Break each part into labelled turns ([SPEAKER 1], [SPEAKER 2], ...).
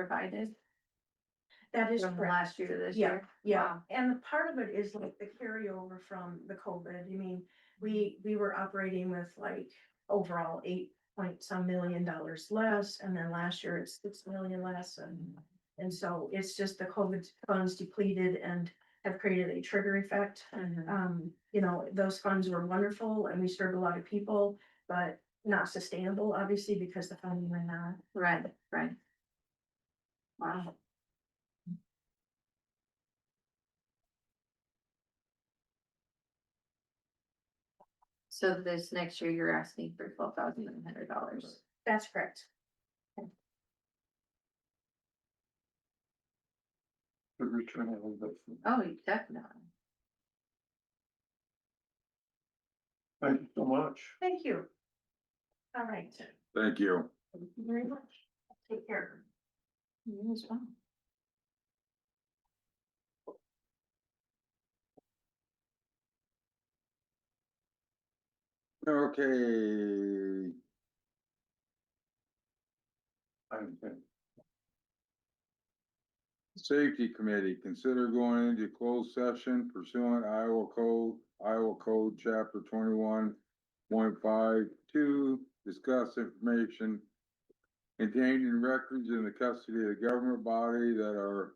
[SPEAKER 1] provided? That is
[SPEAKER 2] From
[SPEAKER 1] from last year to this
[SPEAKER 2] Yeah.
[SPEAKER 1] year?
[SPEAKER 2] Yeah,
[SPEAKER 1] Wow.
[SPEAKER 2] and the part of it is like the carryover from the COVID. I mean, we, we were operating with like overall eight point some million dollars less, and then last year it's six million less, and and so it's just the COVID funds depleted and have created a trigger effect.
[SPEAKER 1] Mhm.
[SPEAKER 2] Um, you know, those funds were wonderful and we served a lot of people, but not sustainable, obviously, because the funding ran out.
[SPEAKER 1] Right, right. Wow. So this next year, you're asking for twelve thousand nine hundred dollars.
[SPEAKER 2] That's correct.
[SPEAKER 3] The return of investment.
[SPEAKER 1] Oh, you definitely.
[SPEAKER 3] Thank you so much.
[SPEAKER 2] Thank you. All right.
[SPEAKER 4] Thank you.
[SPEAKER 2] Thank you very much. Take care.
[SPEAKER 1] You as well.
[SPEAKER 4] Okay,
[SPEAKER 3] I'm good.
[SPEAKER 4] safety committee, consider going into closed session pursuant Iowa code, Iowa code chapter twenty-one. Point five two, discuss information. Contained in records in the custody of the government body that are.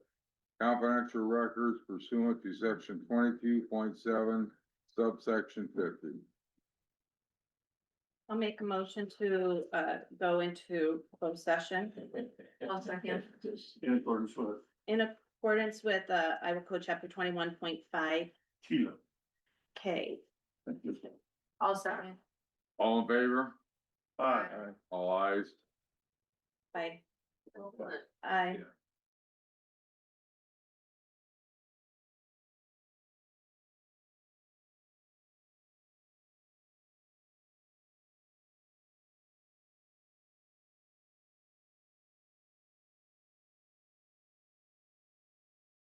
[SPEAKER 4] Confidential records pursuant to section twenty-two point seven subsection fifty.
[SPEAKER 5] I'll make a motion to uh go into closed session
[SPEAKER 1] I'll second.
[SPEAKER 3] In accordance with
[SPEAKER 5] in accordance with uh Iowa Code Chapter twenty-one point five
[SPEAKER 3] Sheila.
[SPEAKER 5] K.
[SPEAKER 3] Thank you.
[SPEAKER 1] I'll second.
[SPEAKER 4] All in favor?
[SPEAKER 3] Aye.
[SPEAKER 4] All eyes.
[SPEAKER 5] Bye. Aye.